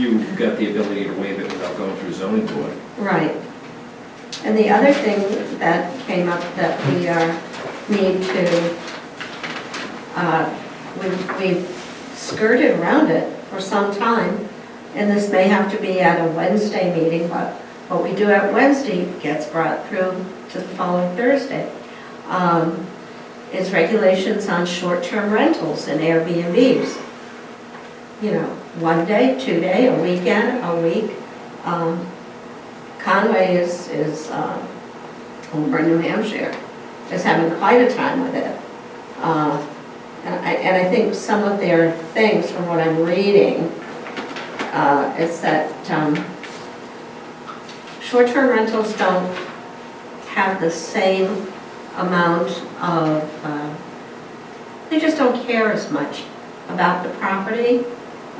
you've got the ability to waive it without going through zoning board. Right. And the other thing that came up that we are, need to, uh, we- we've skirted around it for some time, and this may have to be at a Wednesday meeting, but what we do at Wednesday gets brought through to the following Thursday, um, is regulations on short-term rentals and Airbnbs. You know, one day, two day, a weekend, a week. um, Conway is, is uh, over in New Hampshire, is having quite a time with it. Uh, And I, and I think some of their things, from what I'm reading, uh, is that um, short-term rentals don't have the same amount of, uh, they just don't care as much about the property,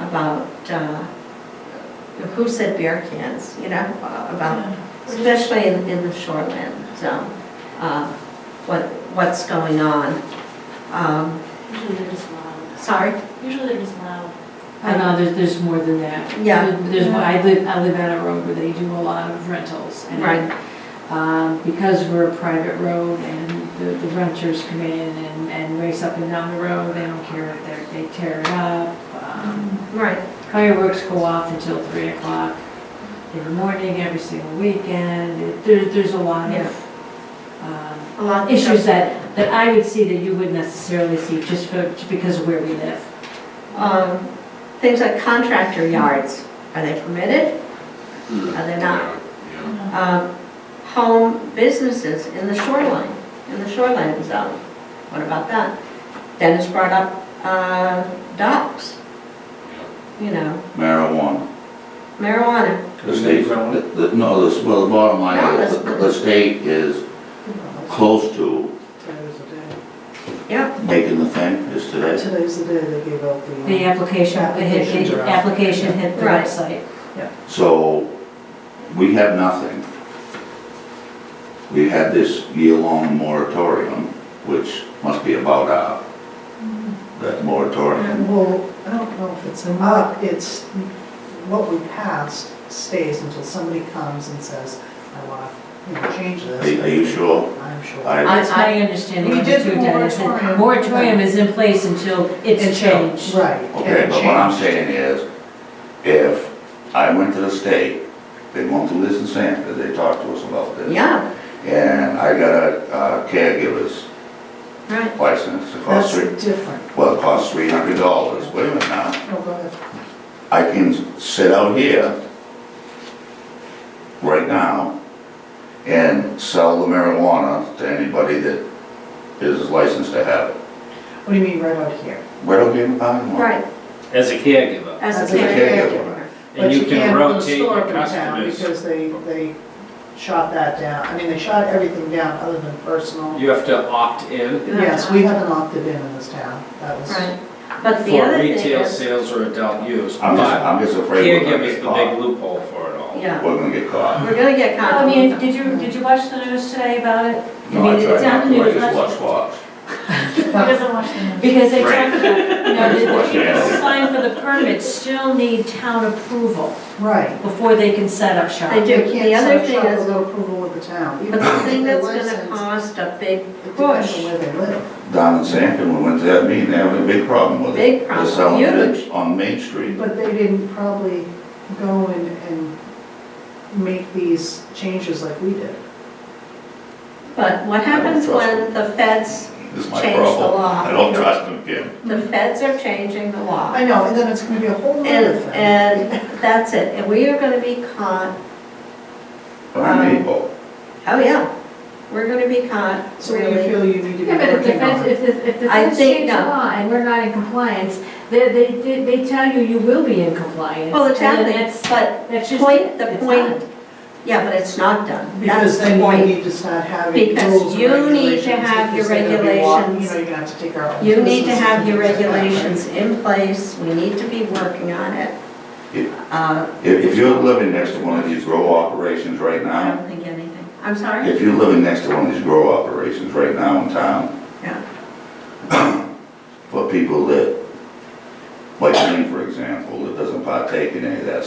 about uh, who said beer cans, you know, about especially in, in the shoreland zone, uh, what, what's going on. Um, Usually they're just loud. Sorry, Usually they're just loud. I know, there's, there's more than that. Yeah. There's, one- I live, I live on a road where they do a lot of rentals. and, Right. Um, because we're a private road and the, the renters come in and, and race up and down the road, they don't care if they're, they tear it up. Um, right, Mm-hmm. Fireworks go off until three o'clock every morning, every single weekend. It- There, there's a lot Yeah. of, um, a lot. of issues stuff. that, that I would see that you wouldn't necessarily see just for, just because of where we live. Um, Things like contractor yards, are they permitted? Mm. Are they not? Yeah, Um, Home businesses in the shoreline, in the shoreline zone, what about that? Dennis brought up uh, docks, you know, yeah. Marijuana. marijuana, The state, the- the- no, this, well, the bottom line No, is, that's- the the state is close to Today's the yeah. making the thing, is day. today. Today's the day they gave out the. The application, the hit, Applications the are out. application hit the Right. website. So, we have nothing. We had this year-long moratorium, which must be about up, that moratorium. Well, I don't know if it's an up, it's, what we passed stays until somebody comes and says, I want to change Are you are this. you sure? I'm sure. I, That's my understanding We of the did two, the Dennis. and moratorium. Moratorium is in place until it's changed. Right. okay, but what I'm saying is, if I went to the state, they won't do this in Sanford, they talked to us about this. Yeah, And I got a uh, caregiver's right. license, it That's costs three, different. well, it costs three hundred dollars, wait a minute now. No, go ahead. I can sit out here right now and sell the marijuana to anybody that is licensed to have it. What do you mean right out here? Where do we even find one? Right, As a caregiver. as As a a caregiver. caregiver. And But you can can't build a rotate store your up in town customers. Because they, they shot that down. I mean, they shot everything down other than personal. You have to opt in Yes, we haven't opted in in this town. That was. Right, but the for other thing retail is, sales or adult use, I'm just, but I'm just afraid we're gonna caregiver's get the big caught. loophole for it all. yeah, We're gonna get caught. we're gonna get caught. I mean, did you, did you watch the news today about it? No, I mean, tried it's not on the to, I news, just that's- watch Fox. Who doesn't watch the news? Because they Right. talked about, you know, the- the Watch the people ad. applying for the permits still need town approval Right. before they can set up shop. They do, They the can't other set up thing shop is, without approval with the town. Even but the if thing they're that's gonna licensed, cost a big It depends push, on where they live. Down in Sanford, we went to that meeting, they had a big problem with it. Big They're problem, selling it huge. On Main Street. But they didn't probably go and, and make these changes like we did. but what happens when the feds, This is my Change the problem. law. I don't trust them, Kim. the feds are changing the law? I know, and then it's gonna be a whole other And, thing. and that's it, and we are gonna be caught, But I'm Um, able. oh yeah, we're gonna be caught, So you really. feel you need to be Yeah, but if the working feds, on. if the, if the I feds think change the no. law and we're not in compliance, they, they, they- they tell you you will be in compliance. Well, And exactly, then that's, but that's just. point, the it's point, not. yeah, but it's not done, that's Because the then you point. need to start having Because rules and you need to regulations. have because your they're gonna be wa- regulations. You know, you're gonna have to take our own. You need to citizens have your things like that, right? regulations in place, we need to be working on it. Yeah. Uh, If, if you're living next to one of these grow operations right I now, don't think anything, I'm sorry? if you're living next to one of these grow operations right now in town. Yeah. For people that, like me, for example, that doesn't partake in any of that